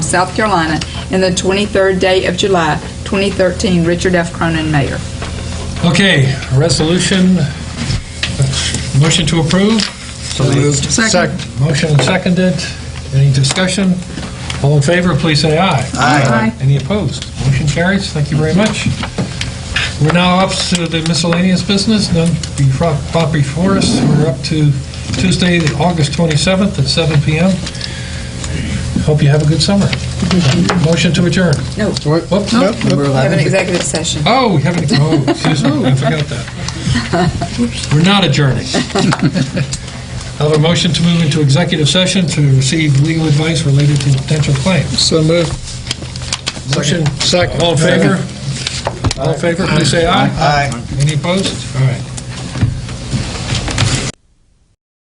South Carolina, and the 23rd day of July, 2013. Richard F. Cronin, Mayor. Okay, resolution, motion to approve? So moved. Second. Motion seconded. Any discussion? All in favor, please say aye. Aye. Any opposed? Motion carries. Thank you very much. We're now up to the miscellaneous business, none befro- brought before us. We're up to Tuesday, August 27th at 7 PM. Hope you have a good summer. Motion to adjourn. No, Whoops. we have an executive session. Oh, we haven't, oh, excuse me, I forgot that. We're not adjourning. I have a motion to move into executive session to receive legal advice related to potential claims. So moved. Motion, all in favor? All in favor, please say aye. Aye. Any opposed? All right.